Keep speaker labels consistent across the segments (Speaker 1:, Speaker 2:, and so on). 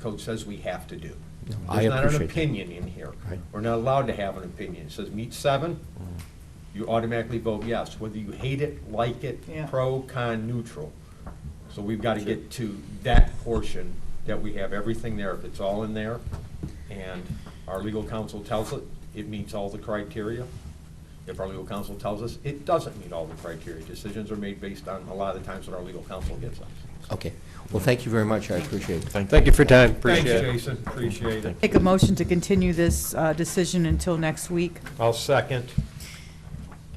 Speaker 1: code says we have to do.
Speaker 2: I
Speaker 1: There's not an
Speaker 2: appreciate that.
Speaker 1: opinion in here.
Speaker 2: Right. Mm.
Speaker 1: We're not allowed to have an opinion. It says meet seven, you automatically vote yes, whether you hate it, like it,
Speaker 3: Yeah.
Speaker 1: pro, con, neutral. So we've got to get to that portion, that we have everything there, if it's all in there, and our legal counsel tells it, it meets all the criteria. If our legal counsel tells us it doesn't meet all the criteria, decisions are made based on a lot of the times that our legal counsel gives us.
Speaker 2: Okay, well, thank you very much, I appreciate it.
Speaker 4: Thank you for your time, appreciate it.
Speaker 1: Thanks, Jason, appreciate it.
Speaker 3: Make a motion to continue this uh, decision until next week.
Speaker 1: I'll second.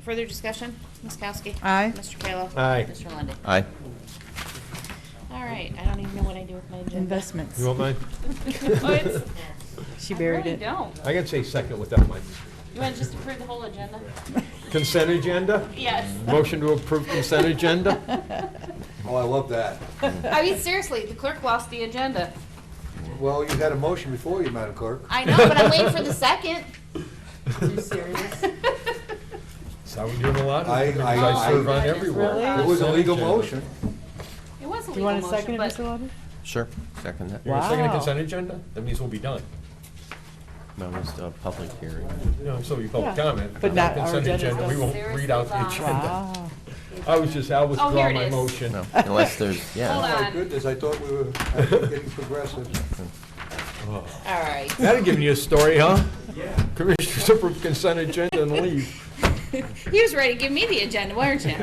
Speaker 5: Further discussion? Ms. Kowski?
Speaker 3: Aye.
Speaker 5: Mr. Kayla?
Speaker 1: Aye.
Speaker 5: Mr. Lundey?
Speaker 2: Aye.
Speaker 5: All right, I don't even know what I do with my agenda.
Speaker 3: Investments.
Speaker 1: You want mine?
Speaker 5: Oh, it's-
Speaker 3: She buried
Speaker 5: I
Speaker 3: it.
Speaker 5: really don't.
Speaker 1: I can say second without my
Speaker 5: You want to just approve the whole agenda?
Speaker 1: consent agenda?
Speaker 5: Yes.
Speaker 1: Motion to approve consent agenda?
Speaker 6: Oh, I love that.
Speaker 5: I mean, seriously, the clerk lost the agenda.
Speaker 6: Well, you had a motion before you, Madam Clerk.
Speaker 5: I know, but I'm waiting for the second.
Speaker 3: Too serious.
Speaker 1: Is that what you're doing a lot?
Speaker 6: I- I-
Speaker 1: I serve
Speaker 5: I-
Speaker 1: on everywhere.
Speaker 3: Really?
Speaker 6: It was a legal motion.
Speaker 5: It was a
Speaker 3: You
Speaker 5: legal
Speaker 3: want a
Speaker 5: motion,
Speaker 3: second,
Speaker 5: but
Speaker 3: Mr. Lawton?
Speaker 2: Sure, second that.
Speaker 1: You're gonna second a
Speaker 3: Wow.
Speaker 1: consent agenda? That means we'll be done.
Speaker 2: No, it's a public hearing.
Speaker 1: No, so you public
Speaker 3: Yeah.
Speaker 1: comment.
Speaker 3: But not- our
Speaker 1: Consent
Speaker 3: agenda's
Speaker 1: agenda, we
Speaker 3: done.
Speaker 1: won't
Speaker 5: There's
Speaker 1: read out the
Speaker 5: the
Speaker 1: agenda.
Speaker 3: Wow.
Speaker 1: I was just, I
Speaker 5: Oh, here
Speaker 1: withdraw
Speaker 5: it
Speaker 1: my
Speaker 5: is.
Speaker 1: motion.
Speaker 2: No, unless there's,
Speaker 5: Hold
Speaker 2: yeah.
Speaker 5: on.
Speaker 6: Oh, My goodness, I thought we were actually getting progressive.
Speaker 5: all right.
Speaker 1: That'd give you a story, huh? Yeah. Commissioners approve consent agenda and leave.
Speaker 5: He was ready to give me the agenda, weren't you?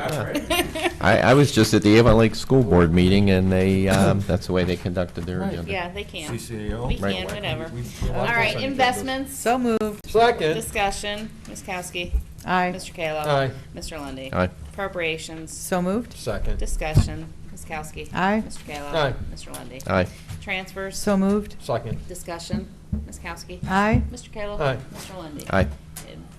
Speaker 2: I, I was just at the Avon Lake School Board meeting, and they, um, that's the way they conducted their agenda.
Speaker 5: Yeah, they can.
Speaker 1: CCAO.
Speaker 5: We
Speaker 2: Right.
Speaker 5: can, whatever.
Speaker 1: We- we-
Speaker 5: All right, investments,
Speaker 3: So moved.
Speaker 1: Second.
Speaker 5: discussion, Ms. Kowski,
Speaker 3: Aye.
Speaker 5: Mr. Kayla.
Speaker 1: Aye.
Speaker 5: Mr. Lundy.
Speaker 2: Aye.
Speaker 5: Appropriations,
Speaker 3: So moved.
Speaker 1: Second.
Speaker 5: Discussion, Ms. Kowski.
Speaker 3: Aye.
Speaker 5: Mr. Kayla.
Speaker 1: Aye.
Speaker 5: Mr. Lundy.
Speaker 2: Aye.
Speaker 5: Transfers.
Speaker 3: So moved.
Speaker 1: Second.
Speaker 5: Discussion, Ms. Kowski.
Speaker 3: Aye.
Speaker 5: Mr. Kayla.
Speaker 1: Aye.
Speaker 5: Mr. Lundy.
Speaker 2: Aye.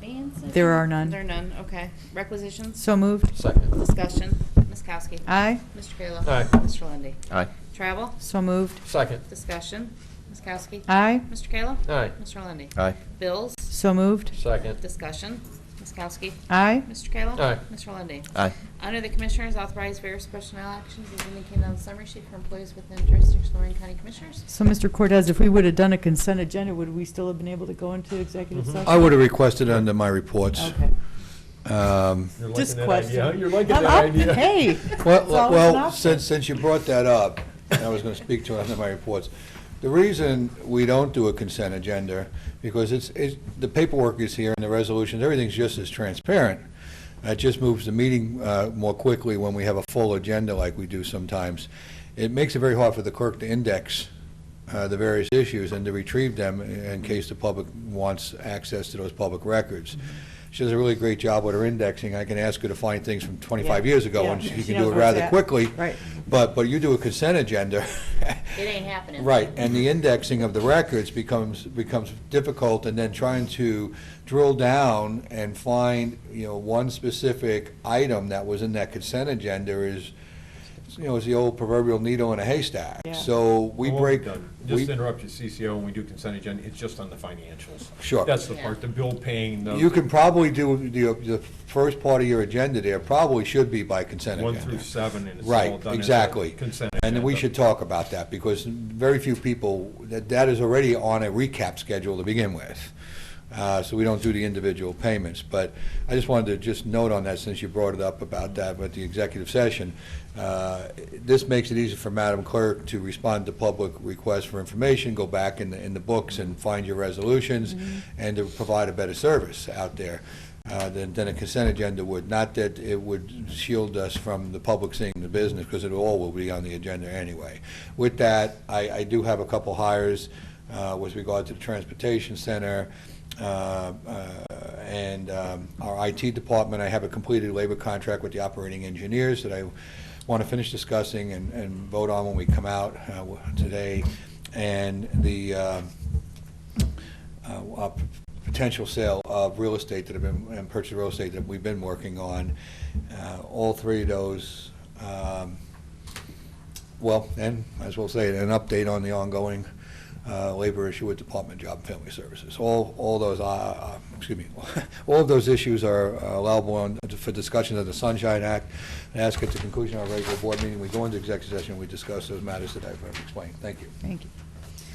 Speaker 5: Advances.
Speaker 3: There are none.
Speaker 5: There are none, okay. Requisitions.
Speaker 3: So moved.
Speaker 1: Second.
Speaker 5: Discussion, Ms. Kowski.
Speaker 3: Aye.
Speaker 5: Mr. Kayla.
Speaker 1: Aye.
Speaker 5: Mr. Lundy.
Speaker 2: Aye.
Speaker 5: Travel.
Speaker 3: So moved.
Speaker 1: Second.
Speaker 5: Discussion, Ms. Kowski.
Speaker 3: Aye.
Speaker 5: Mr. Kayla.
Speaker 1: Aye.
Speaker 5: Mr. Lundy.
Speaker 2: Aye.
Speaker 5: Bills.
Speaker 3: So moved.
Speaker 1: Second.
Speaker 5: Discussion, Ms. Kowski.
Speaker 3: Aye.
Speaker 5: Mr. Kayla.
Speaker 1: Aye.
Speaker 5: Mr. Lundy.
Speaker 2: Aye.
Speaker 5: Under the Commissioners, authorize various personnel actions as indicated on the summary sheet for employees within jurisdiction of Lorraine County Commissioners.
Speaker 3: So, Mr. Cortez, if we would have done a consent agenda, would we still have been able to go into executive
Speaker 1: Mm-hmm.
Speaker 3: session?
Speaker 6: I would have requested under my reports.
Speaker 3: Okay.
Speaker 6: Um,
Speaker 1: You're liking
Speaker 3: Just
Speaker 1: that idea,
Speaker 3: question.
Speaker 1: huh? You're liking
Speaker 3: I'm
Speaker 1: that
Speaker 3: up-
Speaker 1: idea.
Speaker 3: Hey. it's
Speaker 6: Well,
Speaker 3: always an
Speaker 6: well,
Speaker 3: option.
Speaker 6: since, since you brought that up, and I was going to speak to it under my reports, the reason we don't do a consent agenda, because it's, it's, the paperwork is here and the resolutions, everything's just as transparent. It just moves the meeting uh, more quickly when we have a full agenda like we do sometimes. It makes it very hard for the clerk to index uh, the various issues and to retrieve them in in case the public wants access to those public records.
Speaker 3: Mm-hmm.
Speaker 6: She does a really great job with her indexing. I can ask her to find things from 25
Speaker 3: Yeah,
Speaker 6: years ago, and
Speaker 3: yeah.
Speaker 6: she
Speaker 3: She
Speaker 6: can
Speaker 3: knows
Speaker 6: do it
Speaker 3: what's
Speaker 6: rather
Speaker 3: at.
Speaker 6: quickly.
Speaker 3: Right.
Speaker 6: But, but you do a consent agenda.
Speaker 5: It ain't happening.
Speaker 6: Right, and the indexing of the records becomes, becomes difficult, and then trying to drill down and find, you know, one specific item that was in that consent agenda is, you know, is the old proverbial needle in a haystack.
Speaker 3: Yeah.
Speaker 6: So we
Speaker 1: Well,
Speaker 6: break.
Speaker 1: done.
Speaker 6: we-
Speaker 1: Just to interrupt you, CCO, when we do consent agenda, it's just on the financials.
Speaker 6: Sure.
Speaker 1: That's the part, the bill paying,
Speaker 6: You
Speaker 1: the
Speaker 6: can probably do, the, the first part of your agenda there probably should be by consent
Speaker 1: one
Speaker 6: agenda.
Speaker 1: through seven, and it's all done.
Speaker 6: Right,
Speaker 1: as a
Speaker 6: exactly.
Speaker 1: Consent
Speaker 6: And then we
Speaker 1: agenda.
Speaker 6: should talk about that, because very few people, that, that is already on a recap schedule to begin with. Uh, so we don't do the individual payments, but I just wanted to just note on that, since you brought it up about that, with the executive session. Uh, This makes it easy for Madam Clerk to respond to public requests for information, go back in the, in the books and find your resolutions, and to provide a better service out there uh, than, than a consent agenda would. Not that it would shield us from the public seeing the business, because it all will be on the agenda anyway. With that, I, I do have a couple hires uh, with regard to the Transportation Center uh, uh, and um, our IT department. I have a completed labor contract with the operating engineers that I want to finish discussing and, and vote on when we come out uh, today. And the, uh, uh, uh, p- potential sale of real estate that have been, and purchase of real estate that we've been working on. Uh, All three of those, um, well, and might as well say it, an update on the ongoing uh, labor issue with Department of Job and Family Services. All, all those, uh, uh, excuse me, all of those issues are uh, allowable on- for discussion of the Sunshine Act. And ask at the conclusion of our regular board meeting, we go into executive session, we discuss those matters that I've uh, explained. Thank you.
Speaker 3: Thank you.